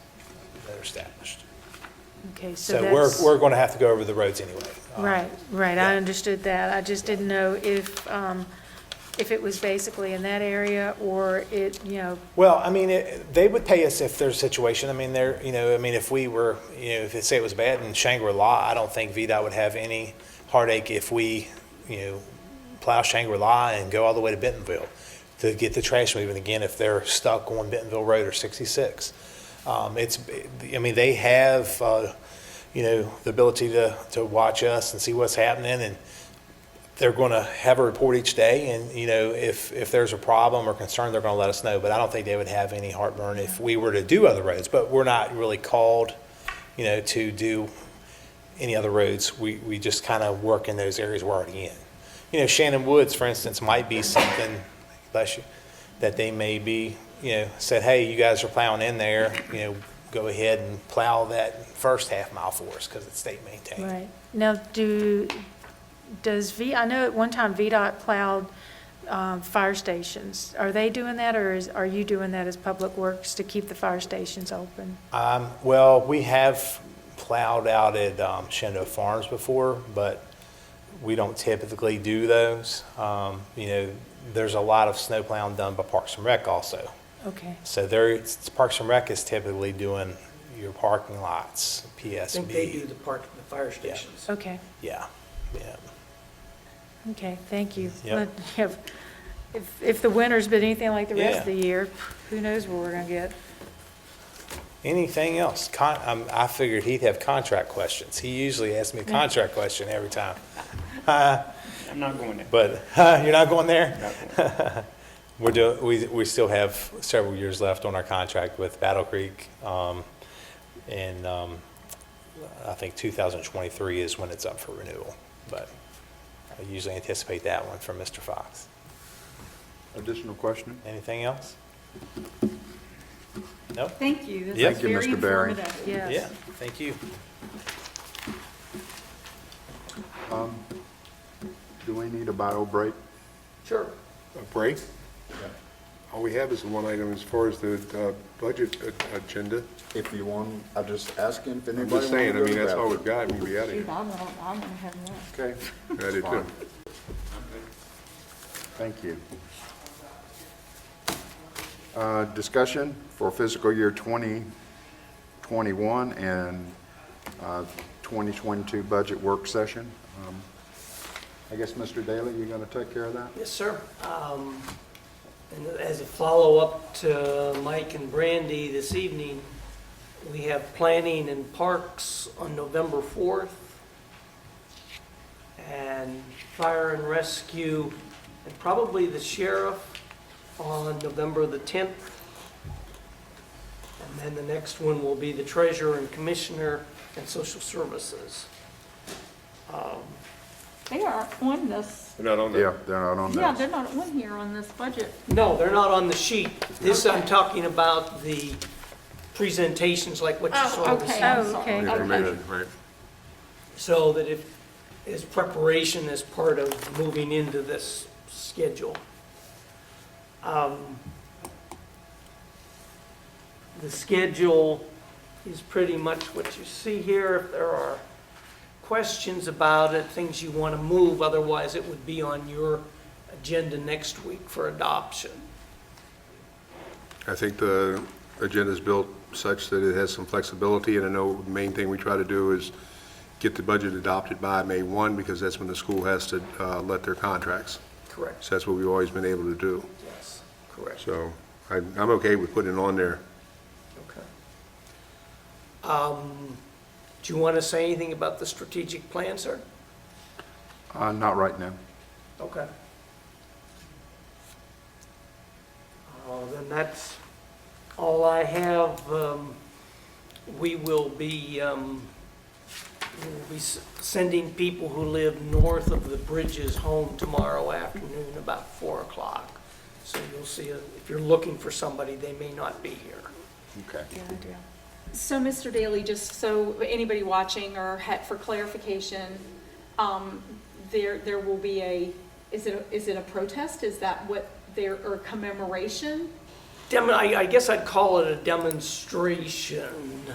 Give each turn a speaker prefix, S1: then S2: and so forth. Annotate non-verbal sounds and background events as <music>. S1: are established.
S2: Okay, so
S1: So we're,
S2: that's,
S1: we're going to have to go over the roads anyway. Um,
S2: right, right,
S1: yeah.
S2: I understood that. I just didn't know if, um, if it was basically in that area or it, you know,
S1: Well, I mean, it- they would pay us if there's a situation, I mean, they're, you know, I mean, if we were, you know, if they say it was bad in Shangri-La, I don't think VDOT would have any heartache if we, you know, plow Shangri-La and go all the way to Bentonville to get the trash moving again if they're stuck on Bentonville Road or 66. Um, It's, I mean, they have, uh, you know, the ability to, to watch us and see what's happening and they're going to have a report each day, and, you know, if, if there's a problem or concern, they're going to let us know. But I don't think they would have any heartburn if we were to do other roads, but we're not really called, you know, to do any other roads. We, we just kind of work in those areas we're already in. You know, Shannon Woods, for instance, might be something, bless you, that they may be, you know, said, hey, you guys are plowing in there, you know, go ahead and plow that first half mile for us because it's state maintained.
S2: right. Now, do, does V, I know at one time VDOT plowed, um, fire stations. Are they doing that or is, are you doing that as Public Works to keep the fire stations open?
S1: Um, well, we have plowed out at, um, Shendo Farms before, but we don't typically do those. Um, you know, there's a lot of snow plowing done by Parks and Rec also.
S2: Okay,
S1: So there, it's- Parks and Rec is typically doing your parking lots,
S3: I think they
S1: PSB.
S3: do the park, the fire stations.
S2: okay.
S1: Yeah, yeah.
S2: Okay, thank you.
S1: Yep.
S2: But if- If, if the winter's been anything like the rest of the
S1: Yeah.
S2: year, who knows what we're gonna get?
S1: Anything else? Con, um, I figured he'd have contract questions. He usually asks me a contract question every time.
S4: I'm not going there.
S1: But, <laughs> huh, you're not going there?
S4: Not going there.
S1: <laughs> We're do, we, we still have several years left on our contract with Battle Creek. Um, and, um, I think two thousand twenty-three is when it's up for renewal. But I usually anticipate that one from Mr. Fox.
S5: Additional question?
S1: Anything else? No?
S6: Thank you. This
S1: Yep.
S6: is
S5: Thank you,
S6: very
S5: Mr. Barry.
S6: informative.
S2: Yes.
S1: Yeah, thank you.
S5: Do we need a bio break?
S3: Sure.
S7: a break. All we have is one item as far as the uh, budget a- agenda.
S5: If you want, I'm just asking if
S7: I'm
S5: anybody wants
S7: just
S5: to
S7: saying, I
S5: go to
S7: mean, that's
S5: the
S7: all
S5: bathroom.
S7: we've got, we'll be out of here.
S6: Shoot, I'm gonna, I'm gonna have lunch.
S5: Okay,
S7: I do too.
S5: thank you. Uh, Discussion for fiscal year 2021 and uh, 2022 budget work session. Um, I guess, Mr. Daly, you're going to take care of that?
S3: Yes, sir. Um, And as a follow-up to Mike and Brandy this evening, we have planning and parks on November 4th, and fire and rescue, and probably the sheriff on November the 10th. And then the next one will be the treasurer and commissioner and social services.
S6: They are on this,
S7: We're not on
S5: Yeah,
S7: there.
S5: they're not on
S6: yeah,
S5: that.
S6: they're not on here on this budget.
S3: No, they're not on the sheet. This, I'm talking about the presentations like what you saw this
S6: Okay, I'm
S2: Oh,
S6: sorry.
S2: okay.
S6: Okay.
S7: right.
S3: So that if, is preparation as part of moving into this schedule. Um, The schedule is pretty much what you see here. If there are questions about it, things you want to move, otherwise it would be on your agenda next week for adoption.
S7: I think the agenda's built such that it has some flexibility, and I know the main thing we try to do is get the budget adopted by May 1, because that's when the school has to uh, let their contracts.
S3: Correct.
S7: So that's what we've always been able to do.
S3: Yes, correct.
S7: So I- I'm okay with putting it on there.
S3: Okay. Um, Do you want to say anything about the strategic plan, sir?
S5: Uh, Not right now.
S3: Okay. Uh, Then that's all I have. Um, We will be, um, we'll be s- sending people who live north of the bridges home tomorrow afternoon about 4 o'clock. So you'll see, uh, if you're looking for somebody, they may not be here.
S5: Okay.
S8: So, Mr. Daly, just so anybody watching or had, for clarification, um, there, there will be a, is it, a- is it a protest? Is that what there, or commemoration?
S3: Dem, I, I guess I'd call it a demonstration.